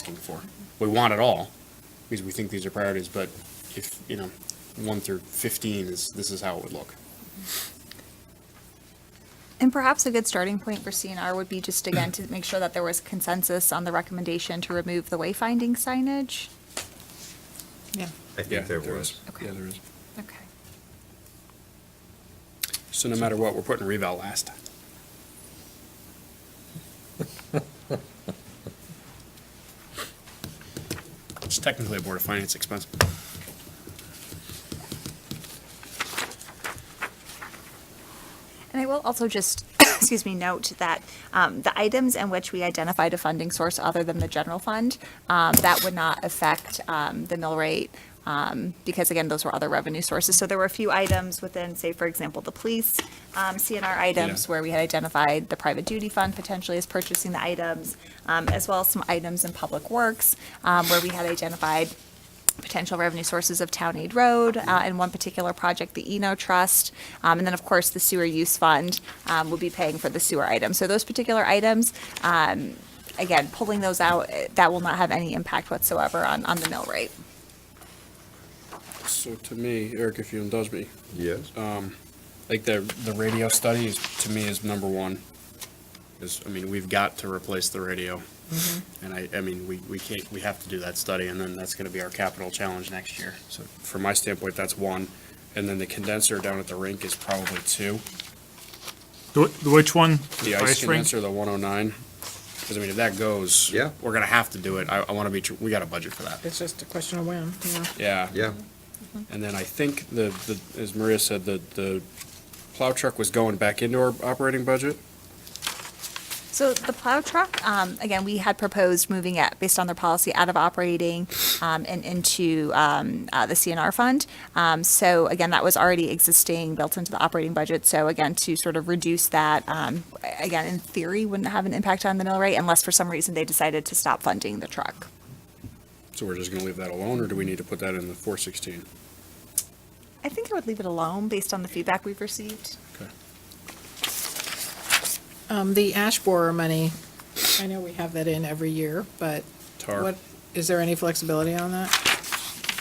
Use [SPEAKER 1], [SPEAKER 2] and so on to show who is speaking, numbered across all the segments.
[SPEAKER 1] asking for. We want it all because we think these are priorities, but if, you know, one through 15 is, this is how it would look.
[SPEAKER 2] And perhaps a good starting point for CNR would be just again to make sure that there was consensus on the recommendation to remove the wayfinding signage.
[SPEAKER 3] Yeah.
[SPEAKER 4] I think there was.
[SPEAKER 2] Okay. Yeah,
[SPEAKER 1] there is.
[SPEAKER 2] Okay.
[SPEAKER 1] So no matter what, we're putting reval last. It's technically a Board of Finance expense.
[SPEAKER 2] And I will also just, excuse me, note that um, the items in which we identified a funding source other than the general fund, um, that would not affect um, the mill rate, um, because again, those were other revenue sources. So there were a few items within, say, for example, the police um, CNR items,
[SPEAKER 1] Yeah.
[SPEAKER 2] where we had identified the private duty fund potentially as purchasing the items, um, as well as some items in public works, um, where we had identified potential revenue sources of Town Aid Road, uh, and one particular project, the Eno Trust. Um, and then, of course, the sewer use fund, um, will be paying for the sewer item. So those particular items, um, again, pulling those out, eh, that will not have any impact whatsoever on, on the mill rate.
[SPEAKER 1] So to me, Eric, if you indulge me,
[SPEAKER 4] Yes.
[SPEAKER 1] like the, the radio study is, to me, is number one. Is, I mean, we've got to replace the radio. And I, I mean, we, we can't, we have to do that study and then that's gonna be our capital challenge next year. So from my standpoint, that's one. And then the condenser down at the rink is probably two.
[SPEAKER 5] The wh- the which one?
[SPEAKER 1] The ice
[SPEAKER 5] rink?
[SPEAKER 1] condenser, the one oh nine. Cause I mean, if that goes.
[SPEAKER 4] Yeah.
[SPEAKER 1] We're gonna have to do it. I, I wanna be, tr- we got a budget for that.
[SPEAKER 3] It's just a question of when, you know.
[SPEAKER 1] Yeah.
[SPEAKER 4] Yeah,
[SPEAKER 1] And then I think the, the, as Maria said, the, the plow truck was going back into our operating budget.
[SPEAKER 2] So the plow truck, um, again, we had proposed moving it based on their policy out of operating um, and into um, uh, the CNR fund. Um, so again, that was already existing, built into the operating budget. So again, to sort of reduce that, um, a- again, in theory, wouldn't have an impact on the mill rate unless for some reason they decided to stop funding the truck.
[SPEAKER 1] So we're just gonna leave that alone, or do we need to put that in the four sixteen?
[SPEAKER 2] I think I would leave it alone based on the feedback we've received.
[SPEAKER 1] Okay.
[SPEAKER 3] Um, the ash borer money, I know we have that in every year, but
[SPEAKER 1] Tar.
[SPEAKER 3] what, is there any flexibility on that?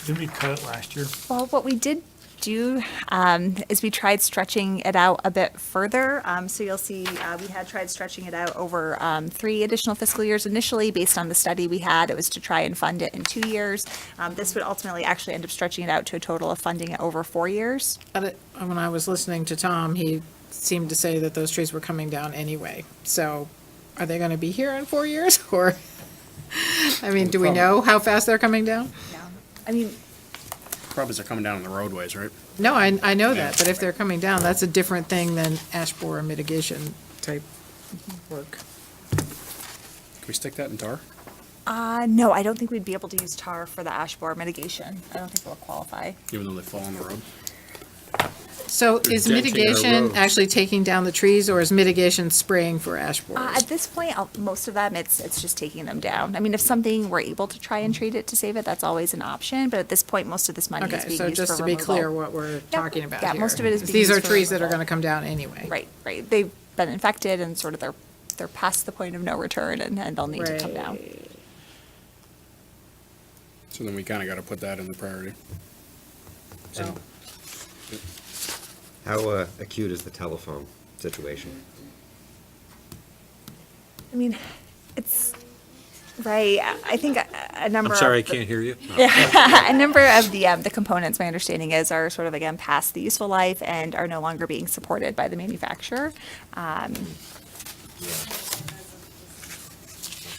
[SPEAKER 5] Didn't we cut it last year?
[SPEAKER 2] Well, what we did do um, is we tried stretching it out a bit further. Um, So you'll see, uh, we had tried stretching it out over um, three additional fiscal years initially, based on the study we had. It was to try and fund it in two years. Um, This would ultimately actually end up stretching it out to a total of funding it over four years.
[SPEAKER 3] But it- When I was listening to Tom, he seemed to say that those trees were coming down anyway. So are they gonna be here in four years or? I mean, do we know how fast they're coming down?
[SPEAKER 2] I mean,
[SPEAKER 1] Probably they're coming down on the roadways, right?
[SPEAKER 3] No, I, I know
[SPEAKER 1] Yeah.
[SPEAKER 3] that, but if they're coming down, that's a different thing than ash borer mitigation type work.
[SPEAKER 1] Can we stick that in tar?
[SPEAKER 2] uh, no, I don't think we'd be able to use tar for the ash borer mitigation. I don't think it'll qualify.
[SPEAKER 1] Even though they fall on the road?
[SPEAKER 3] So is
[SPEAKER 4] denting our roads.
[SPEAKER 3] mitigation actually taking down the trees, or is mitigation spraying for ash
[SPEAKER 2] Uh,
[SPEAKER 3] borers?
[SPEAKER 2] At this point, I'll- most of them, it's, it's just taking them down. I mean, if something, we're able to try and treat it to save it, that's always an option, but at this point, most of this money is
[SPEAKER 3] Okay,
[SPEAKER 2] being used for
[SPEAKER 3] so
[SPEAKER 2] removal.
[SPEAKER 3] just to be clear what we're talking about
[SPEAKER 2] yeah,
[SPEAKER 3] here,
[SPEAKER 2] most of it is being
[SPEAKER 3] These are
[SPEAKER 2] used for
[SPEAKER 3] trees that are
[SPEAKER 2] removal.
[SPEAKER 3] gonna come down anyway.
[SPEAKER 2] Right, right. They've been infected and sort of they're, they're past the point of no return and, and they'll need to come down.
[SPEAKER 3] Right.
[SPEAKER 1] So then we kinda gotta put that in the priority.
[SPEAKER 3] So,
[SPEAKER 1] Oh.
[SPEAKER 4] how uh, acute is the telephone situation?
[SPEAKER 2] I mean, it's, right, I- I think a- a number
[SPEAKER 6] I'm
[SPEAKER 2] of.
[SPEAKER 6] sorry, I can't hear you.
[SPEAKER 2] a number of the, um, the components, my understanding is, are sort of again past the useful life and are no longer being supported by the manufacturer. Um,
[SPEAKER 4] Yeah.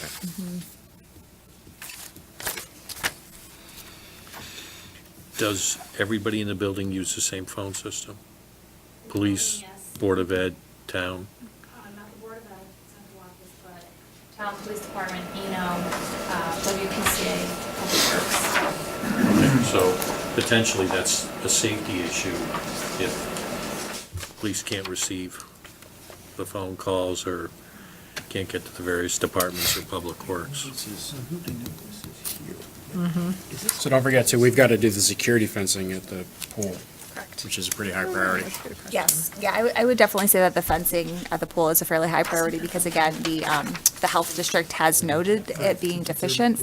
[SPEAKER 4] Okay.
[SPEAKER 6] Does everybody in the building use the same phone system? Police, Board of Ed, town?
[SPEAKER 7] Uh, not the Board of Ed, it's not the office, but town police department, Eno, uh, WPCA, Public Works.
[SPEAKER 6] So potentially that's a safety issue if police can't receive the phone calls or can't get to the various departments or public works.
[SPEAKER 5] Mm-hmm.
[SPEAKER 1] So don't forget too, we've gotta do the security fencing at the pool. Correct. Which is a pretty high priority.
[SPEAKER 2] Yes, yeah, I would- I would definitely say that the fencing at the pool is a fairly high priority because again, the, um, the health district has noted it being deficient